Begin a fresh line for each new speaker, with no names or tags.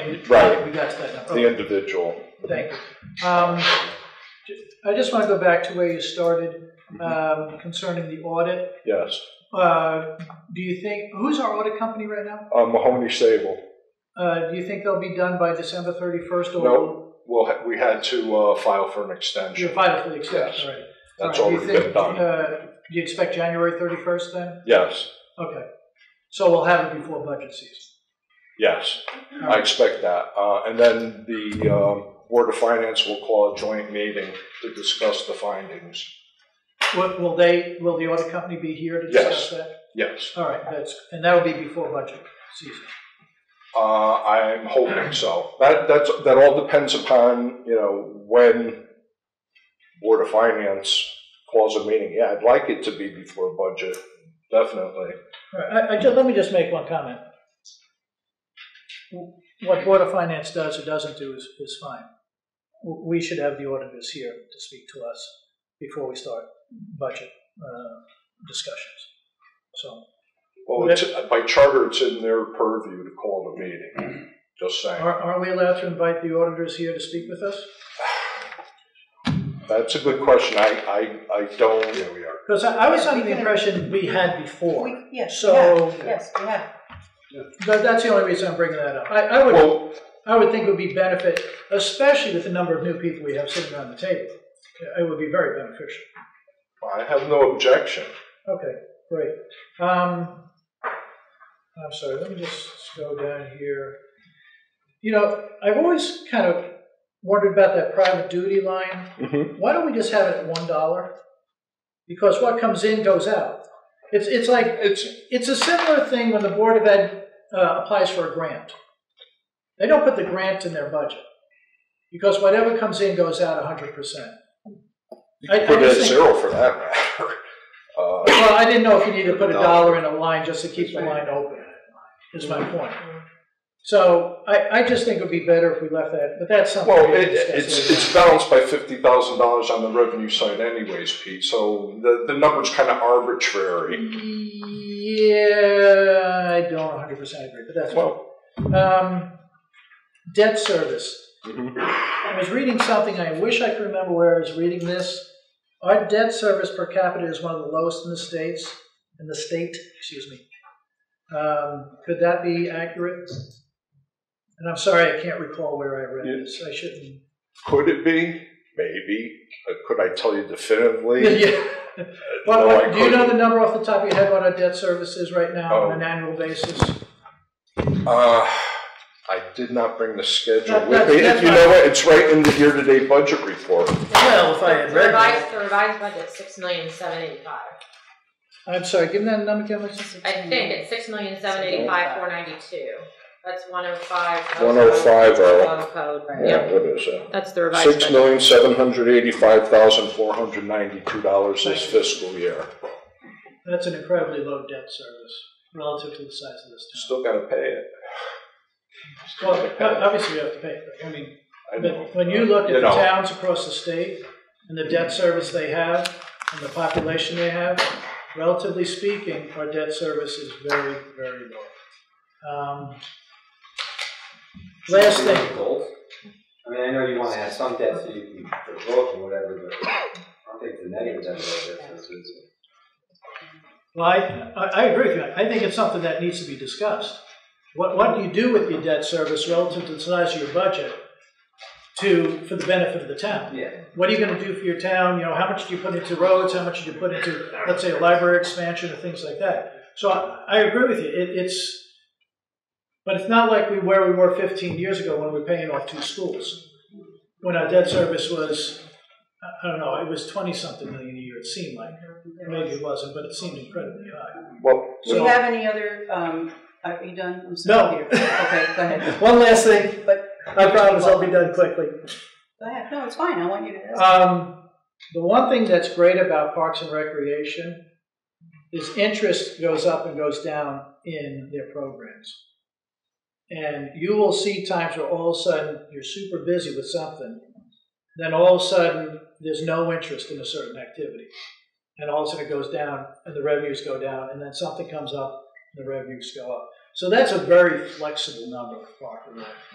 you.
Right.
We got to that now.
the individual.
Thank you. Um, ju- I just want to go back to where you started um, concerning the audit.
Yes,
Uh, Do you think, who's our audit company right now?
uh, Mahoney Sable.
Uh, Do you think they'll be done by December 31st? or
No, well, ha- we had to uh, file for an
You're
extension.
filing for the extension,
Yes.
all right.
That's
All right, do
already
you think,
been done.
uh, Do you expect January 31st then?
Yes,
Okay. So we'll have it before budget season.
yes,
All
I
right.
expect that. Uh, and then the um, Board of Finance will call a joint meeting to discuss the findings.
Will will they, will the audit company be here to
Yes.
discuss that?
Yes,
All right, that's, and that will be before budget season.
uh, I'm hoping so. That that's that all depends upon you know when Board of Finance calls a meeting. Yeah, I'd like it to be before budget, definitely.
All right, I, I, ju- let me just make one comment. What Board of Finance does or doesn't do is, is fine. W- We should have the auditors here to speak to us before we start budget, uh, discussions. So,
Well, it's, by charter, it's in their purview to call the meeting, just saying.
are, are we allowed to invite the auditors here to speak with us?
That's a good question, I, I, I don't. Here we are.
Because I, I was under
We
the
can-
impression we had
We,
before,
yes, yeah,
so,
yes, we have.
that, that's the only reason I'm bringing that up. I, I would,
Well,
I would think it would be benefit, especially with the number of new people we have sitting around the table. It would be very beneficial.
I have no objection.
Okay, great. Um, I'm sorry, let me just go down here. You know, I've always kind of wondered about that private duty line.
Mm-hmm.
Why don't we just have it at one dollar? Because what comes in goes out. It's, it's like,
It's,
it's a similar thing when the Board of Ed uh, applies for a grant. They don't put the grant in their budget, because whatever comes in goes out hundred percent.
you
I-
can put
I
it at
just think-
zero for that matter. Uh,
Well, I didn't know if you needed to put a
No.
dollar in a line just to keep the line open, is my
Mm-hmm.
point. So I, I just think it would be better if we left that, but that's something.
Well,
we
it,
discussed
it's,
later
it's balanced by fifty thousand dollars on the revenue side anyways, Pete, so the, the number's kind of arbitrary.
on. Yeah, I don't hundred percent agree, but that's.
Well,
Um, debt service.
mhm.
I was reading something, I wish I could remember where I was reading this. Our debt service per capita is one of the lowest in the states, in the state, excuse me. Um, Could that be accurate? And I'm sorry, I can't recall where I read this, I shouldn't.
could it be? Maybe. Uh, Could I tell you definitively? Uh,
Yeah.
No, I
Well, do you know
couldn't.
the number off the top of your head what our debt service is right now on an
Oh.
annual basis?
Uh, I did not bring the schedule
That-
with
that's-
me.
that's
You know what, it's right in the year-to-date budget report.
Well, if I had read that.
Revised, the revised budget, six million, seven eighty-five.
I'm sorry, give me that number again, Lisa.
I think it's six million, seven eighty-five, four ninety-two. That's one oh five.
105, oh.
Code, right,
Yeah,
yeah,
what is it?
that's the revised
Six
budget.
million, seven hundred eighty-five thousand, four hundred ninety-two dollars this fiscal year.
That's an incredibly low debt service relative to the size of this town.
Still gotta pay it.
Well, o- obviously, we have to pay for it. I mean,
I know.
but when you look at the
know,
towns across the state and the debt service they have and the population they have, relatively speaking, our debt service is very, very low. Um, Last thing,
Goals? I mean, I know you wanna have some debt so you can vote and whatever, but I don't think the negative end of that is, is
well, I, I I agree with you. I think it's something that needs to be discussed. What, what do you do with your debt service relative to the size of your budget to, for the benefit of the town?
yeah.
what are you gonna do for your town, you know, how much do you put into roads, how much do you put into, let's say, a library expansion or things like that. So I, I agree with you, it, it's, but it's not like we, where we were fifteen years ago when we were paying off two schools. When our debt service was, I- I don't know, it was twenty-something million a year, it seemed like, maybe it wasn't, but it seemed incredibly high.
Well,
Do you
So-
have any other, um, are you done? I'm sorry,
No.
Peter. Okay, go ahead,
One last thing,
but,
I promise I'll be done quickly.
go ahead, no, it's fine, I want you to.
Um, the one thing that's great about Parks and Recreation is interest goes up and goes down in their programs. And you will see times where all of a sudden you're super busy with something, then all of a sudden there's no interest in a certain activity. And all of a sudden it goes down and the revenues go down, and then something comes up and the revenues go up. So that's a very flexible number for Parks and Rec.